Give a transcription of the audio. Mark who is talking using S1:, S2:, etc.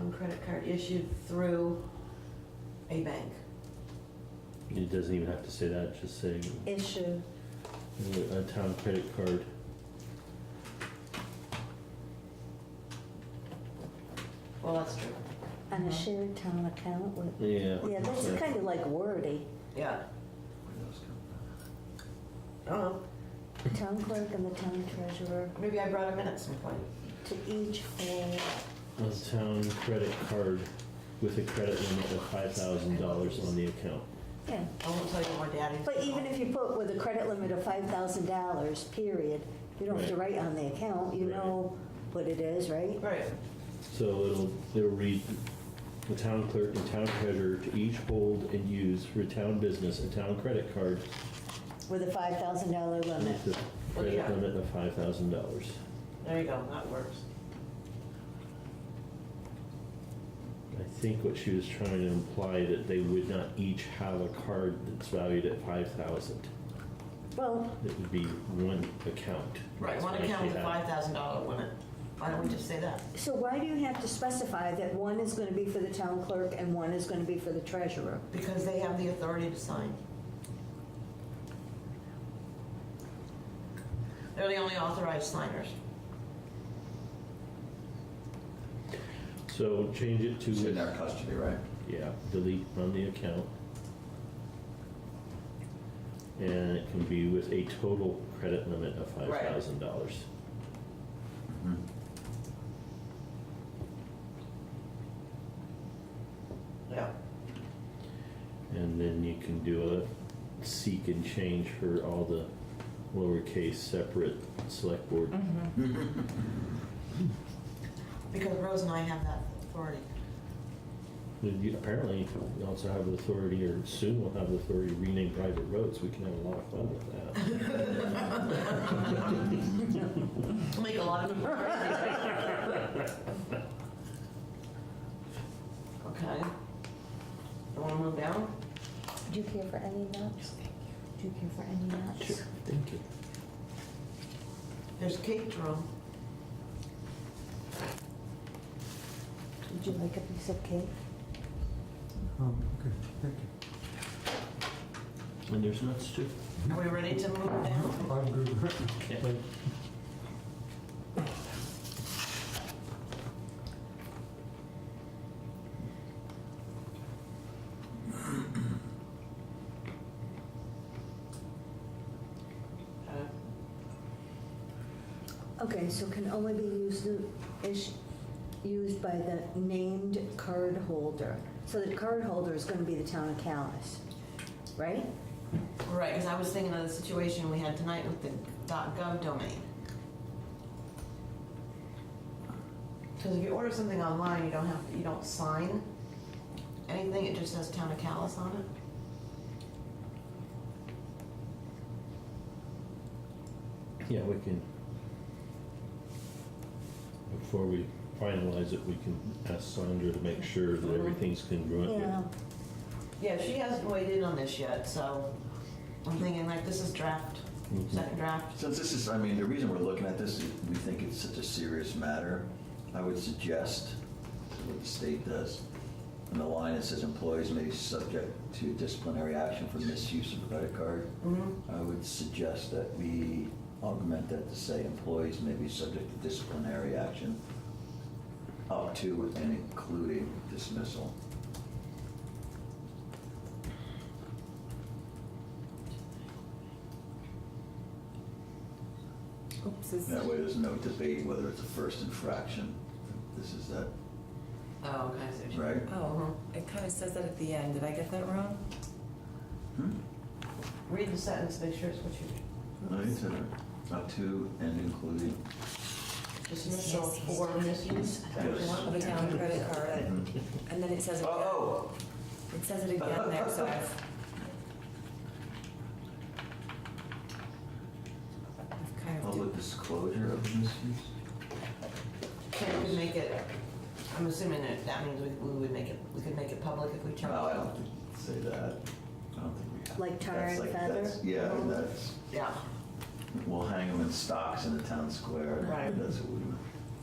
S1: own credit card issued through a bank.
S2: It doesn't even have to say that, just say
S3: issue.
S2: a town credit card.
S1: Well, that's true.
S3: On a shared town account with,
S2: Uh-huh. Yeah.
S3: yeah, that's
S2: Yeah.
S3: kind of like wordy.
S1: Yeah. I don't know.
S3: Town clerk and the town treasurer
S1: Maybe I brought him in at some point.
S3: to each hold
S2: A town credit card with a credit limit of five thousand dollars on the account.
S3: yeah.
S1: I won't tell you where Daddy.
S3: But even if you put with a credit limit of five thousand dollars, period, you don't have to write on the account, you
S2: Right.
S3: know what it is, right?
S1: Right.
S2: So it'll, it'll read, the town clerk and town treasurer to each hold and use for town business a town credit card
S3: With a five thousand dollar limit.
S2: with a credit
S1: Yeah.
S2: limit of five thousand dollars.
S1: There you go, that works.
S2: I think what she was trying to imply that they would not each have a card that's valued at five thousand.
S3: Well,
S2: It would be one account.
S1: Right,
S2: That's
S1: one
S2: why she
S1: account with a
S2: had-
S1: five thousand dollar limit. Why don't we just say that?
S3: so why do you have to specify that one is gonna be for the town clerk and one is gonna be for the treasurer?
S1: Because they have the authority to sign. They're the only authorized signers.
S2: So change it to.
S4: It's in their custody, right?
S2: Yeah, delete from the account. And it can be with a total credit limit of five
S1: Right.
S2: thousand dollars.
S4: Mm-hmm.
S1: Yeah.
S2: And then you can do a seek and change for all the lowercase separate select board.
S1: Mm-hmm. Because Rose and I have that authority.
S2: And you- Apparently, you also have the authority, or soon will have the authority to rename private roads, we can have a lot of fun with that.
S1: It'll make a lot of people crazy. Okay. You wanna move down?
S3: Do you care for any nuts? Do you care for any nuts?
S2: Thank you.
S1: There's cake drum.
S3: Would you like a piece of cake?
S5: Um, okay, thank you.
S2: And there's nuts too.
S1: Are we ready to move down?
S5: I'm good.
S2: Okay.
S5: Like,
S1: Uh,
S3: Okay, so can only be used, is used by the named cardholder. So the cardholder is gonna be the town of Callis, right?
S1: Right, because I was thinking of the situation we had tonight with the .gov domain. Because if you order something online, you don't have, you don't sign anything, it just says Town of Callis on it.
S2: Yeah, we can. Before we finalize it, we can ask Sandra to make sure that everything's congruent
S3: Yeah,
S2: with
S1: Yeah, she hasn't weighed in on this yet, so I'm thinking like, this is draft,
S4: Mm-hmm.
S2: Mhm.
S1: second draft.
S4: Since this is, I mean, the reason we're looking at this, is we think it's such a serious matter. I would suggest what the state does. In the line, it says employees may be subject to disciplinary action for misuse of a credit card.
S1: Mm-hmm.
S4: I would suggest that we augment that to say employees may be subject to disciplinary action up to and including dismissal.
S6: Oops, is,
S4: That way, there's no debate whether it's a first infraction. This is that,
S1: Oh, okay, I see what you mean.
S4: right?
S6: oh, it kind of says that at the end. Did I get that wrong?
S4: Hmm?
S1: Read the sentence, make sure it's what you,
S4: No, you said it. Up to uh, and including.
S1: dismissal for misuse. Is that what you want?
S6: Of a town credit
S3: Uh,
S6: card,
S4: Mhm.
S6: and then it says it again.
S4: Oh,
S6: It says it again there, so I've. I've kind of.
S4: public disclosure of misuse?
S1: Can we make it, I'm assuming that that means we, we would make it, we could make it public if we chose.
S4: No, Oh, I don't think you say that. I don't think we have.
S3: Like tar
S4: That's
S3: and
S4: like-
S3: feather?
S4: that's- Yeah, that's,
S1: Yeah,
S4: we'll hang them in stocks in the town square.
S1: Right.
S4: That's what we